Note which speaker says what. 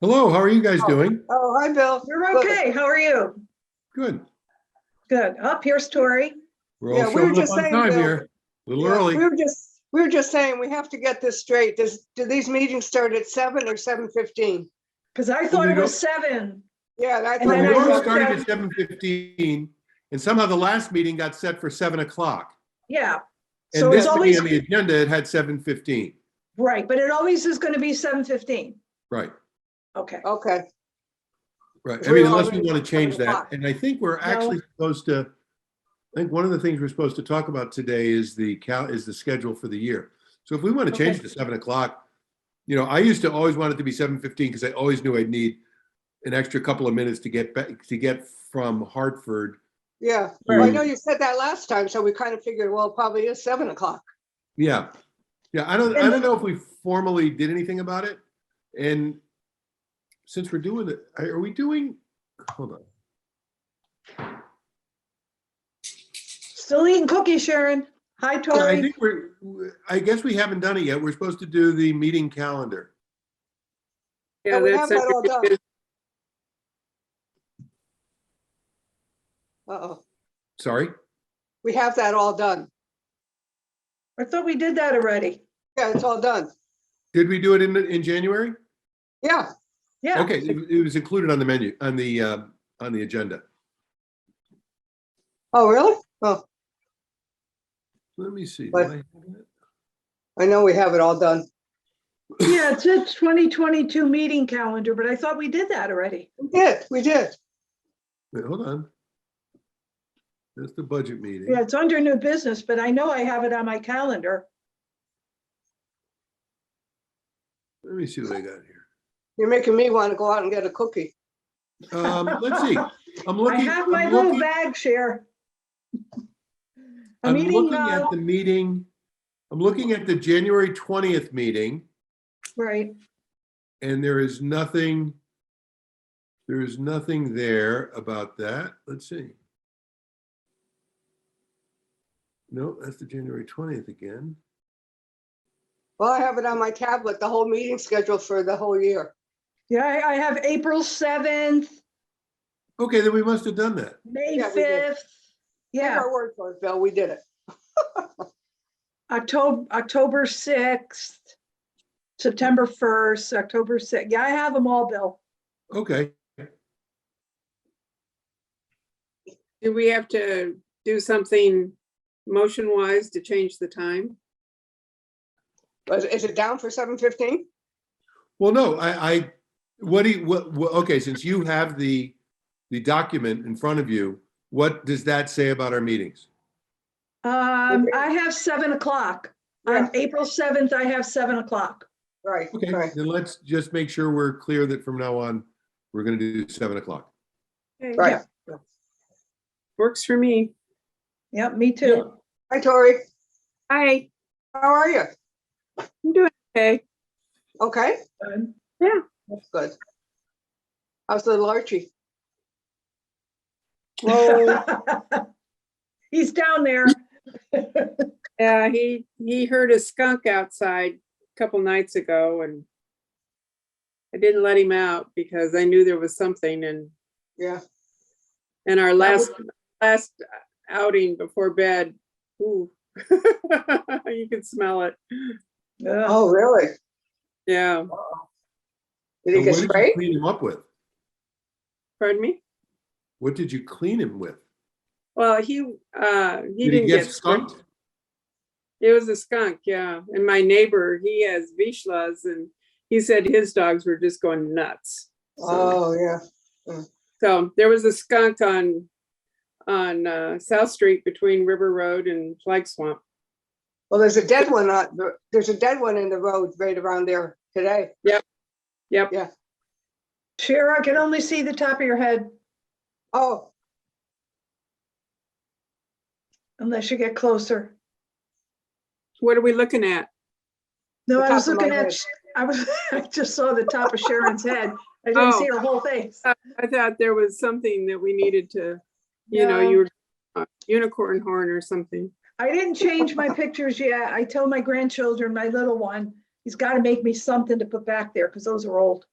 Speaker 1: Hello, how are you guys doing?
Speaker 2: Oh, hi, Bill.
Speaker 3: We're okay. How are you?
Speaker 1: Good.
Speaker 3: Good. Up, here's Tori.
Speaker 1: We're
Speaker 2: Yeah,
Speaker 1: all
Speaker 2: we were
Speaker 1: showing up
Speaker 2: just
Speaker 1: on
Speaker 2: saying,
Speaker 1: time
Speaker 2: Bill.
Speaker 1: here. A little
Speaker 2: Yeah,
Speaker 1: early.
Speaker 2: We were just, we were just saying, we have to get this straight. Does, do these meetings start at seven or seven fifteen?
Speaker 3: Because I thought it
Speaker 1: we
Speaker 3: was seven.
Speaker 2: Yeah, and I
Speaker 3: And
Speaker 1: The
Speaker 2: thought
Speaker 3: then I
Speaker 1: warrant
Speaker 3: wrote
Speaker 2: it was-
Speaker 1: started
Speaker 3: down-
Speaker 1: at seven fifteen and somehow the last meeting got set for seven o'clock.
Speaker 3: Yeah. So
Speaker 1: And
Speaker 3: it's
Speaker 1: this to be
Speaker 3: always,
Speaker 1: on the agenda, it had seven fifteen.
Speaker 3: right, but it always is going to be seven fifteen.
Speaker 1: Right,
Speaker 3: Okay.
Speaker 2: okay,
Speaker 1: right. I
Speaker 2: We
Speaker 1: mean,
Speaker 2: were
Speaker 1: unless we
Speaker 2: already
Speaker 1: want
Speaker 2: at
Speaker 1: to change
Speaker 2: 7
Speaker 1: that.
Speaker 2: o'clock.
Speaker 1: And I think we're actually supposed to, I think one of the things we're supposed to talk about today is the cal, is the schedule for the year. So if we want to change it to seven o'clock, you know, I used to always want it to be seven fifteen because I always knew I'd need an extra couple of minutes to get back, to get from Hartford
Speaker 2: yeah.
Speaker 3: Right.
Speaker 2: Well, I know you said that last time, so we kind of figured, well, it probably is seven o'clock.
Speaker 1: Yeah, yeah, I don't, I
Speaker 3: And-
Speaker 1: don't know if we formally did anything about it, and since we're doing it, are we doing, hold on,
Speaker 3: Still eating cookies, Sharon. Hi,
Speaker 1: I
Speaker 3: Tori.
Speaker 1: think we're, I guess we haven't done it yet, we're supposed to do the meeting calendar.
Speaker 2: Yeah, we have that all done. Uh-oh,
Speaker 1: Sorry,
Speaker 2: we have that all done.
Speaker 3: I thought we did that already.
Speaker 2: Yeah, it's all done.
Speaker 1: did we do it in, in January?
Speaker 2: Yeah,
Speaker 3: Yeah.
Speaker 1: Okay, it it was included on the menu, on the, uh, on the agenda.
Speaker 2: oh, really? Oh,
Speaker 1: Let me see. did
Speaker 2: But-
Speaker 1: I have it?
Speaker 2: I know we have it all done.
Speaker 3: Yeah, it's a twenty twenty-two meeting calendar, but I thought we did that already.
Speaker 2: We did, we did.
Speaker 1: Wait, hold on. That's the budget meeting.
Speaker 3: Yeah, it's under new business, but I know I have it on my calendar.
Speaker 1: Let me see what I got here.
Speaker 2: You're making me want to go out and get a cookie.
Speaker 1: Um, let's see, I'm
Speaker 3: I
Speaker 1: looking.
Speaker 3: have
Speaker 1: I'm
Speaker 3: my little
Speaker 1: looking-
Speaker 3: bag, Share.
Speaker 1: I'm
Speaker 3: I'm eating,
Speaker 1: looking
Speaker 3: uh,
Speaker 1: at the meeting, I'm looking at the January twentieth meeting,
Speaker 3: right.
Speaker 1: and there is nothing, there is nothing there about that. Let's see. No, that's the January twentieth again.
Speaker 2: Well, I have it on my tablet, the whole meeting schedule for the whole year.
Speaker 3: Yeah, I, I have April seventh,
Speaker 1: Okay, then we must have done that.
Speaker 3: May
Speaker 2: Yeah, we did.
Speaker 3: fifth.
Speaker 2: Take
Speaker 3: Yeah,
Speaker 2: Our word for it, Bill, we did it.
Speaker 3: October, October sixth, September first, October sixth. Yeah, I have them all, Bill.
Speaker 1: Okay,
Speaker 4: Do we have to do something motion wise to change the time?
Speaker 2: Was- Is it down for seven fifteen?
Speaker 1: well, no, I, I, what do you, what, what- okay, since you have the, the document in front of you, what does that say about our meetings?
Speaker 3: Um,
Speaker 2: Okay.
Speaker 3: I have seven o'clock. On
Speaker 2: Yeah.
Speaker 3: April seventh, I have seven o'clock.
Speaker 2: Right,
Speaker 1: Okay,
Speaker 2: right.
Speaker 1: then let's just make sure we're clear that from now on, we're gonna do seven o'clock.
Speaker 2: Right.
Speaker 4: Works for me.
Speaker 3: Yep, me too.
Speaker 2: Hi, Tori.
Speaker 4: Hi,
Speaker 2: How are you?
Speaker 4: I'm doing okay.
Speaker 2: Okay,
Speaker 3: Um,
Speaker 2: that's good. How's little Archie?
Speaker 4: Well,
Speaker 3: He's down there.
Speaker 4: yeah, he, he heard a skunk outside a couple nights ago and I didn't let him out because I knew there was something and,
Speaker 2: Yeah,
Speaker 4: and our last, last outing before bed, ooh. You can smell it.
Speaker 3: Ugh.
Speaker 2: oh, really?
Speaker 4: Yeah,
Speaker 2: Did he
Speaker 1: And
Speaker 2: get
Speaker 1: what did you
Speaker 2: sprayed?
Speaker 1: Clean him up with?
Speaker 4: pardon me?
Speaker 1: What did you clean him with?
Speaker 4: Well, he, uh, he
Speaker 1: Did
Speaker 4: didn't get.
Speaker 1: skunked?
Speaker 4: It was a skunk, yeah. And my neighbor, he has Vishlas, and he said his dogs were just going nuts. So,
Speaker 2: Oh, yeah,
Speaker 4: so there was a skunk on on uh, South Street between River Road and Flag Swamp.
Speaker 2: well, there's a dead one, on- there's a dead one in the road right around there today.
Speaker 4: Yep.
Speaker 3: Share, I can only see the top of your head
Speaker 2: Oh,
Speaker 3: unless you get closer.
Speaker 4: What are we looking at?
Speaker 3: No,
Speaker 2: The
Speaker 3: I was
Speaker 2: top of my
Speaker 3: looking at,
Speaker 2: head.
Speaker 3: Sh- I was, I just saw the top of Sharon's head. I didn't
Speaker 4: Oh.
Speaker 3: see her whole
Speaker 2: Uh,
Speaker 3: face.
Speaker 4: I thought there was something that we needed to, you know, you were uh, unicorn horn or something.
Speaker 3: I didn't change my pictures yet. I tell my grandchildren, my little one, he's got to make me something to put back there because those are old.